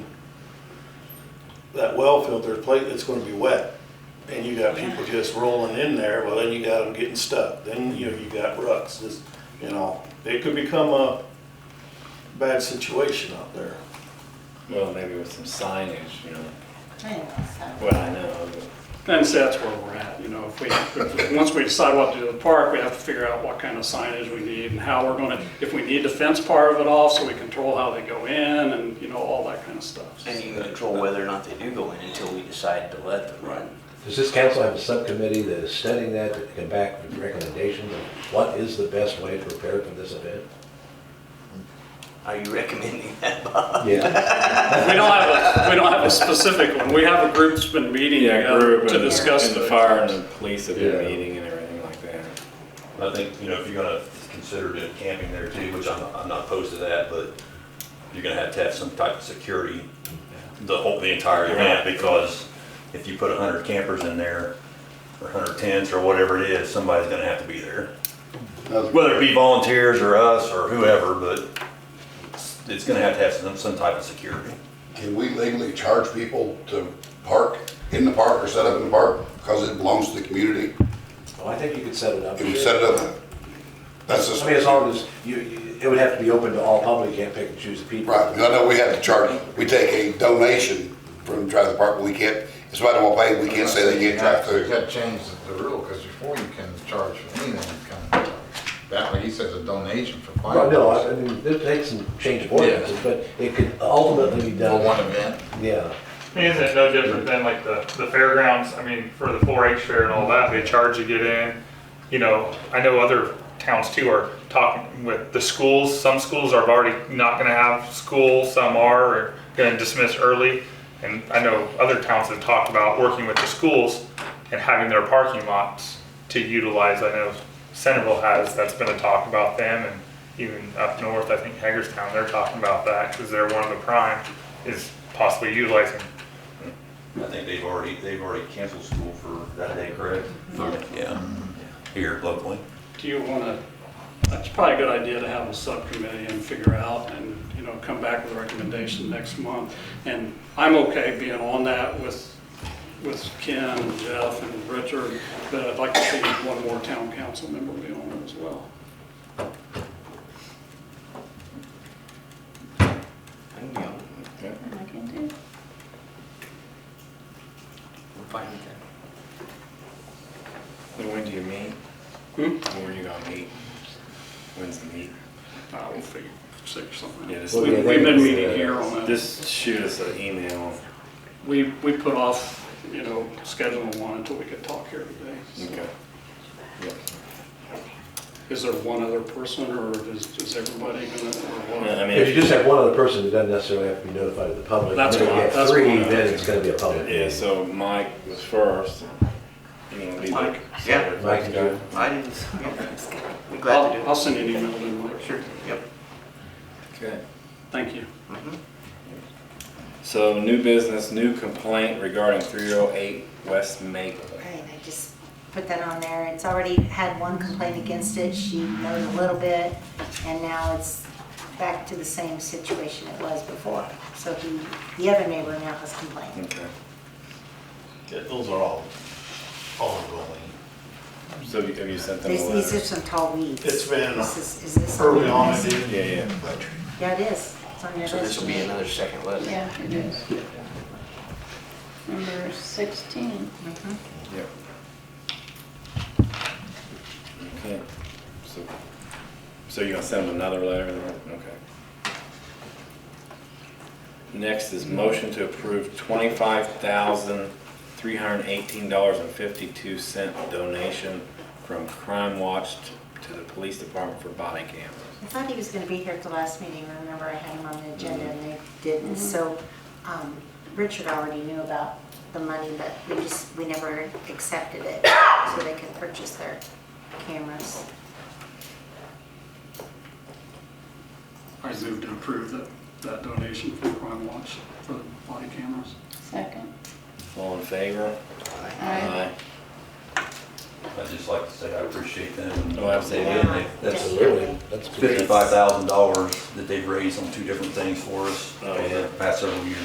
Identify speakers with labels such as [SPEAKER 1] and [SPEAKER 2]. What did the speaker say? [SPEAKER 1] that well filter plate, it's gonna be wet. And you got people just rolling in there, well, then you got them getting stuck, then, you know, you got rucks, this, you know, it could become a bad situation out there.
[SPEAKER 2] Well, maybe with some signage, you know,
[SPEAKER 3] Anyways,
[SPEAKER 2] well, I know,
[SPEAKER 4] And so that's where we're at, you know, if we, if- once we decide what to do with the park, we have to figure out what kind of signage we need and how we're gonna, if we need to fence part of it off so we control how they go in and, you know, all that kind of stuff.
[SPEAKER 5] And you can control whether or not they do go in until we decide to let them run.
[SPEAKER 6] Does this council have a subcommittee that is studying that, that can come back with recommendations of what is the best way to prepare for this event?
[SPEAKER 5] Are you recommending that, Bob?
[SPEAKER 6] Yeah.
[SPEAKER 4] We don't have, a we don't have a specific one, we have a group that's been meeting
[SPEAKER 2] Yeah,
[SPEAKER 4] together
[SPEAKER 2] group
[SPEAKER 4] to
[SPEAKER 2] and-
[SPEAKER 4] discuss
[SPEAKER 2] and
[SPEAKER 4] the
[SPEAKER 2] the
[SPEAKER 4] fire.
[SPEAKER 2] fire and the police have been
[SPEAKER 6] Yeah.
[SPEAKER 2] meeting and everything like that.
[SPEAKER 7] I think, you know, if you're gonna consider doing camping there too, which I'm, I'm not opposed to that, but you're gonna have to have some type of security, the whole, the entire event, because if you put a hundred campers in there, or hundred tents, or whatever it is, somebody's gonna have to be there. Whether it be volunteers, or us, or whoever, but it's- it's gonna have to have some, some type of security.
[SPEAKER 8] Can we legally charge people to park in the park or set up in the park because it belongs to the community?
[SPEAKER 6] Well, I think you could set it up.
[SPEAKER 8] Can we set it up? That's just,
[SPEAKER 6] I
[SPEAKER 8] right,
[SPEAKER 6] mean, as long as, you, you- it would have to be open to all public, you can't pick and choose the people.
[SPEAKER 8] I know we have to charge, we take a donation from Drive the Park, but we can't, it's right on my pay, we can't say they can't drive
[SPEAKER 9] You
[SPEAKER 8] through.
[SPEAKER 9] gotta change the rule, because before you can charge for anything, you can, that way he says a donation for fire.
[SPEAKER 6] Well, no, I I mean, this takes some change of ordinances, but it could ultimately be
[SPEAKER 9] For one
[SPEAKER 6] done,
[SPEAKER 9] event,
[SPEAKER 6] yeah.
[SPEAKER 10] I mean, isn't it uh, no different than like the, the fairgrounds, I mean, for the four H fair and all that, they charge you to get in. You know, I know other towns too are talking with the schools, some schools are already not gonna have school, some are, or gonna dismiss early. And I know other towns have talked about working with the schools and having their parking lots to utilize. I know Centerville has, that's been a talk about them and even up north, I think Hagerstown, they're talking about that, cause they're one of the prime, is possibly utilizing
[SPEAKER 7] I think they've already, they've already canceled school for that day, correct?
[SPEAKER 5] Yeah.
[SPEAKER 7] Here locally.
[SPEAKER 4] Do you wanna, it's probably a good idea to have a subcommittee and figure out and, you know, come back with a recommendation next month. And I'm okay being on that with, with Ken and Jeff and Richard, but I'd like to see one more town council member be on it as well.
[SPEAKER 5] I can go.
[SPEAKER 3] I can do.
[SPEAKER 5] We're fine with that.
[SPEAKER 2] And when do you meet?
[SPEAKER 4] Hmm?
[SPEAKER 2] When are you gonna meet? When's the meet?
[SPEAKER 4] I will figure, six something
[SPEAKER 2] Yeah, uh,
[SPEAKER 4] out.
[SPEAKER 2] just-
[SPEAKER 4] We- We've been meeting here on that.
[SPEAKER 2] Just shoot us an email.
[SPEAKER 4] We, we put off, you know, scheduling one until we could talk here today. so.
[SPEAKER 2] Okay. Yep. Mm-hmm.
[SPEAKER 4] Is there one other person or is, is everybody gonna, or what?
[SPEAKER 2] I mean,
[SPEAKER 6] If you just have one other person, it doesn't necessarily have to be notified to the public.
[SPEAKER 4] That's
[SPEAKER 6] If you
[SPEAKER 4] fine,
[SPEAKER 6] have
[SPEAKER 4] that's
[SPEAKER 6] three,
[SPEAKER 4] fine.
[SPEAKER 6] then it's gonna be a public.
[SPEAKER 2] Yeah,
[SPEAKER 6] meeting.
[SPEAKER 2] so Mike was first. You know, be
[SPEAKER 5] Mike,
[SPEAKER 2] like-
[SPEAKER 5] yeah.
[SPEAKER 6] Mike, did you-
[SPEAKER 5] I didn't, yeah. I'm glad to
[SPEAKER 4] I'll,
[SPEAKER 5] do
[SPEAKER 4] I'll send you an email then, Mike.
[SPEAKER 5] it. Sure, yep.
[SPEAKER 2] Okay.
[SPEAKER 4] Thank you.
[SPEAKER 2] So new business, new complaint regarding three oh eight West Maple.
[SPEAKER 3] Right, I just put that on there. It's already had one complaint against it. She knows a little bit, and now it's back to the same situation it was before. So he, the other neighbor now has complained.
[SPEAKER 2] Okay.
[SPEAKER 1] Yeah, Those are all ongoing.
[SPEAKER 2] So have you sent them a
[SPEAKER 3] These, these are
[SPEAKER 2] letter?
[SPEAKER 3] some tall weeds.
[SPEAKER 1] It's been
[SPEAKER 3] This is, is this?
[SPEAKER 1] early on, it did
[SPEAKER 2] Yeah, yeah.
[SPEAKER 3] Yeah, it is. It's on your
[SPEAKER 5] So this
[SPEAKER 3] list.
[SPEAKER 5] will be another second letter.
[SPEAKER 11] Yeah, it is. Number 16.
[SPEAKER 3] Mhm.
[SPEAKER 2] Yep. Okay, so, so you're gonna send them another letter, okay. Next is motion to approve twenty-five thousand, three hundred and eighteen dollars and fifty-two cent donation from Crime Watch t- to the police department for body cameras.
[SPEAKER 3] I thought he was gonna be here at the last meeting, remember I had him on the agenda and they didn't, so, um, Richard already knew about the money, but we just, we never accepted it, so they could purchase their cameras.
[SPEAKER 4] I move to approve that, that donation for Crime Watch for the body cameras.
[SPEAKER 11] Second.
[SPEAKER 2] All in favor?
[SPEAKER 11] Aye.
[SPEAKER 7] I'd just like to say I appreciate them.
[SPEAKER 2] Oh, absolutely.
[SPEAKER 7] And they-
[SPEAKER 6] That's really, that's.
[SPEAKER 7] fifty-five thousand dollars that they've raised on two different things for us
[SPEAKER 2] Oh,
[SPEAKER 7] over
[SPEAKER 2] yeah.
[SPEAKER 7] the past several years.